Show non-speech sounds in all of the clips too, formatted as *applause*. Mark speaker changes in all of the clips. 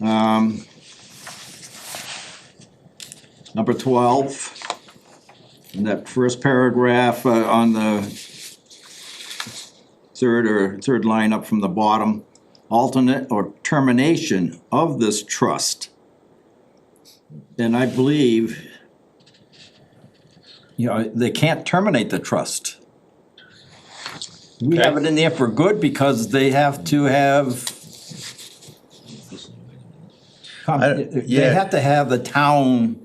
Speaker 1: Um, Number twelve, in that first paragraph uh, on the third or third line up from the bottom, alternate or termination of this trust. And I believe, you know, they can't terminate the trust. We have it in there for good because they have to have. They
Speaker 2: yeah.
Speaker 1: have to have the town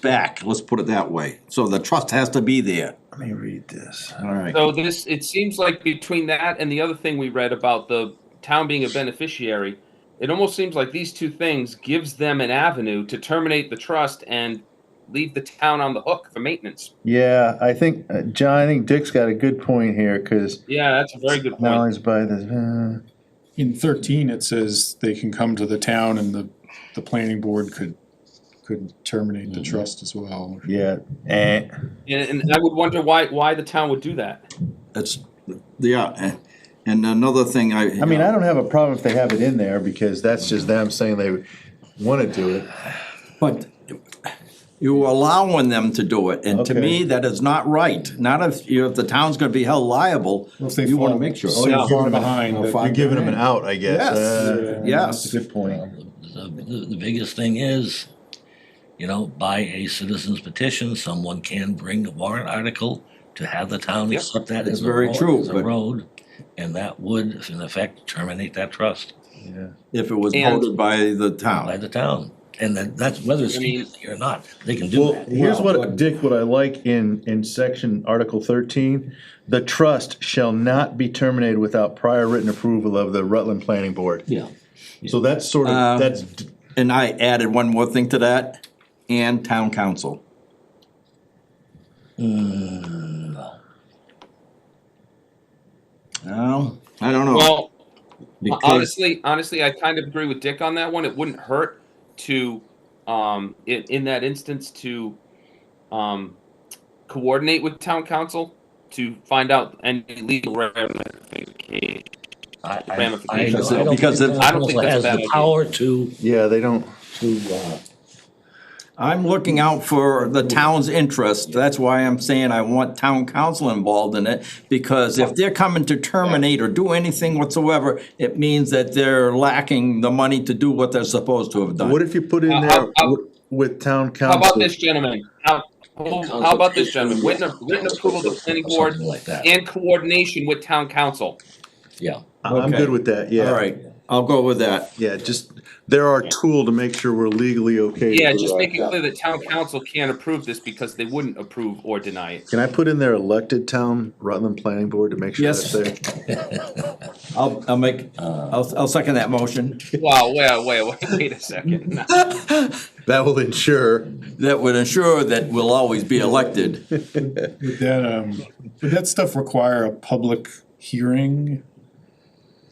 Speaker 1: back, let's put it that way. So the trust has to be there.
Speaker 2: Let me read this.
Speaker 1: All right.
Speaker 3: So this, it seems like between that and the other thing we read about the town being a beneficiary, it almost seems like these two things gives them an avenue to terminate the trust and leave the town on the hook for maintenance.
Speaker 2: Yeah, I think, uh, John, I think Dick's got a good point here, because
Speaker 3: Yeah, that's a very good point.
Speaker 2: knowledge by the, uh,
Speaker 4: In thirteen, it says they can come to the town and the, the planning board could, could terminate
Speaker 1: Mm-hmm.
Speaker 4: the trust as well.
Speaker 2: yeah, eh,
Speaker 3: And, and I would wonder why, why the town would do that.
Speaker 1: It's, yeah, and another thing I. uh,
Speaker 2: I mean, I don't have a problem if they have it in there, because that's just them saying they wanna do it.
Speaker 1: But you are allowing them to do it, and to me,
Speaker 2: Okay.
Speaker 1: that is not right. Not if, you, if the town's gonna be held liable,
Speaker 4: If they
Speaker 1: you wanna
Speaker 4: fall
Speaker 1: make sure.
Speaker 4: so
Speaker 3: Yeah.
Speaker 4: far behind
Speaker 1: Oh,
Speaker 4: that-
Speaker 1: fuck.
Speaker 2: You're giving them an out, I guess.
Speaker 1: Yes.
Speaker 2: Uh,
Speaker 1: Yes,
Speaker 2: Good point.
Speaker 5: The, the, the biggest thing is, you know, by a citizen's petition, someone can bring a warrant article to have the town
Speaker 3: Yep.
Speaker 5: accept that
Speaker 1: It's
Speaker 5: as a
Speaker 1: very
Speaker 5: road,
Speaker 1: true,
Speaker 5: as a
Speaker 1: but-
Speaker 5: road, and that would, in effect, terminate that trust
Speaker 2: Yeah.
Speaker 1: if it was
Speaker 3: And-
Speaker 1: voted by the
Speaker 5: by
Speaker 1: town.
Speaker 5: the town. And that, that's whether it's
Speaker 3: I mean-
Speaker 5: citizenry or not, they can do
Speaker 2: Well,
Speaker 5: that.
Speaker 2: here's
Speaker 1: Well,
Speaker 2: what,
Speaker 1: but-
Speaker 2: Dick, what I like in, in section Article thirteen, the trust shall not be terminated without prior written approval of the Rutland Planning Board.
Speaker 1: Yeah.
Speaker 2: So that's sort
Speaker 1: Uh,
Speaker 2: of, that's,
Speaker 1: And I added one more thing to that, and town council. No, I don't know.
Speaker 3: Well,
Speaker 1: because-
Speaker 3: honestly, honestly, I kind of agree with Dick on that one. It wouldn't hurt to, um, in, in that instance, to, um, coordinate with town council to find out any legal ramifications.
Speaker 5: I- I- I-
Speaker 3: Ramifications.
Speaker 5: I don't
Speaker 1: Because
Speaker 5: think
Speaker 1: if-
Speaker 5: town
Speaker 3: I don't think
Speaker 5: council
Speaker 3: that's a
Speaker 5: has
Speaker 3: bad
Speaker 5: the
Speaker 3: idea.
Speaker 5: Power to,
Speaker 2: yeah, they don't,
Speaker 5: to, uh,
Speaker 1: I'm looking out for the town's interest, that's why I'm saying I want town council involved in it, because if they're coming to terminate or do anything whatsoever, it means that they're lacking the money to do what they're supposed to have
Speaker 2: what
Speaker 1: done.
Speaker 2: if you put in
Speaker 3: Uh,
Speaker 2: there
Speaker 3: how- how-
Speaker 2: wi- with town
Speaker 3: How
Speaker 2: council?
Speaker 3: about this, gentlemen? How, how about this, gentlemen? Written, written approval of the planning board
Speaker 5: Something like that,
Speaker 3: and coordination with town council.
Speaker 5: yeah.
Speaker 2: I'm
Speaker 1: Okay.
Speaker 2: good with that, yeah.
Speaker 1: All right, I'll go with that.
Speaker 2: Yeah, just, they're our tool to make sure we're legally okay. to
Speaker 3: Yeah,
Speaker 2: do
Speaker 3: just
Speaker 2: our
Speaker 3: make it
Speaker 2: job.
Speaker 3: clear that town council can't approve this because they wouldn't approve or deny it.
Speaker 2: Can I put in there elected town Rutland Planning Board to make sure
Speaker 1: Yes.
Speaker 2: that's there?
Speaker 1: I'll, I'll make, I'll, I'll second that motion.
Speaker 3: Wow, wait, wait, wait, *laughs* wait a second.
Speaker 2: That will ensure,
Speaker 1: That would ensure that we'll always be elected.
Speaker 4: Would that, um, would that stuff require a public hearing?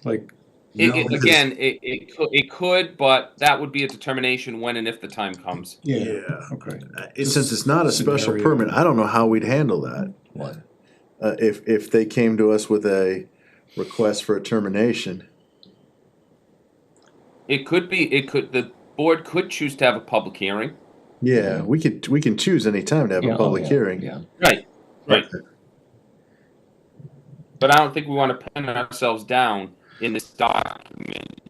Speaker 4: Like,
Speaker 3: It,
Speaker 2: No,
Speaker 3: it,
Speaker 2: because-
Speaker 3: again, it, it, cou- it could, but that would be a determination when and if the time comes.
Speaker 4: yeah,
Speaker 2: yeah.
Speaker 4: okay.
Speaker 2: Uh, Since it's not a special
Speaker 4: Scenario.
Speaker 2: permit, I don't know how we'd handle that.
Speaker 5: What?
Speaker 2: Uh, if, if they came to us with a request for a termination.
Speaker 3: It could be, it could, the board could choose to have a public hearing.
Speaker 2: Yeah, we could, we can choose any time to have
Speaker 5: Yeah,
Speaker 2: a
Speaker 5: oh,
Speaker 2: public
Speaker 5: yeah,
Speaker 2: hearing.
Speaker 5: Yeah,
Speaker 3: Right, right. But I don't think we want to pin ourselves down in this document,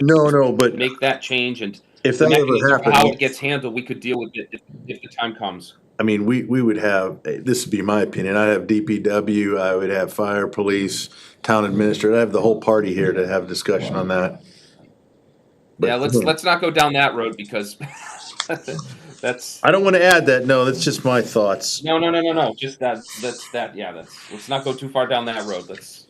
Speaker 2: No, no, but
Speaker 3: make that change and
Speaker 2: if
Speaker 3: the
Speaker 2: that
Speaker 3: mechanism
Speaker 2: ever
Speaker 3: for how it
Speaker 2: happened,
Speaker 3: gets handled, we could deal with it if, if the time comes.
Speaker 2: I mean, we, we would have, eh, this would be my opinion, I'd have DPW, I would have fire, police, town administrator, I'd have the whole party here to have discussion on that. But- uh-huh.
Speaker 3: Yeah, let's, let's not go down that road because *laughs* that's,
Speaker 2: I don't wanna add that, no, that's just my thoughts.
Speaker 3: no, no, no, no, no, just that, that's, that, yeah, that's, let's not go too far down that road. Let's,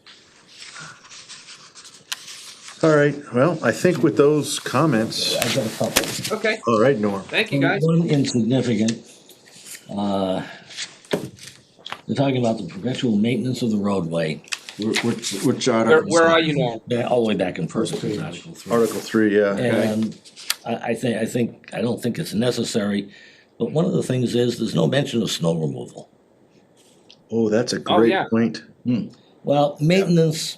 Speaker 2: All right, well, I think with those comments,
Speaker 5: I got a couple.
Speaker 3: okay,
Speaker 2: all right, Norm.
Speaker 3: thank you guys.
Speaker 5: One insignificant, uh, they're talking about the perpetual maintenance of the roadway,
Speaker 1: Wh- Which, which
Speaker 3: Where,
Speaker 1: article?
Speaker 3: where are you now?
Speaker 5: ba- all the way back in first It's Article three.
Speaker 2: Article three, yeah.
Speaker 5: And I, I think, I think, I don't think it's necessary, but one of the things is, there's no mention of snow removal.
Speaker 2: Oh, that's a
Speaker 3: Oh,
Speaker 2: great
Speaker 3: yeah.
Speaker 2: point.
Speaker 5: Well, maintenance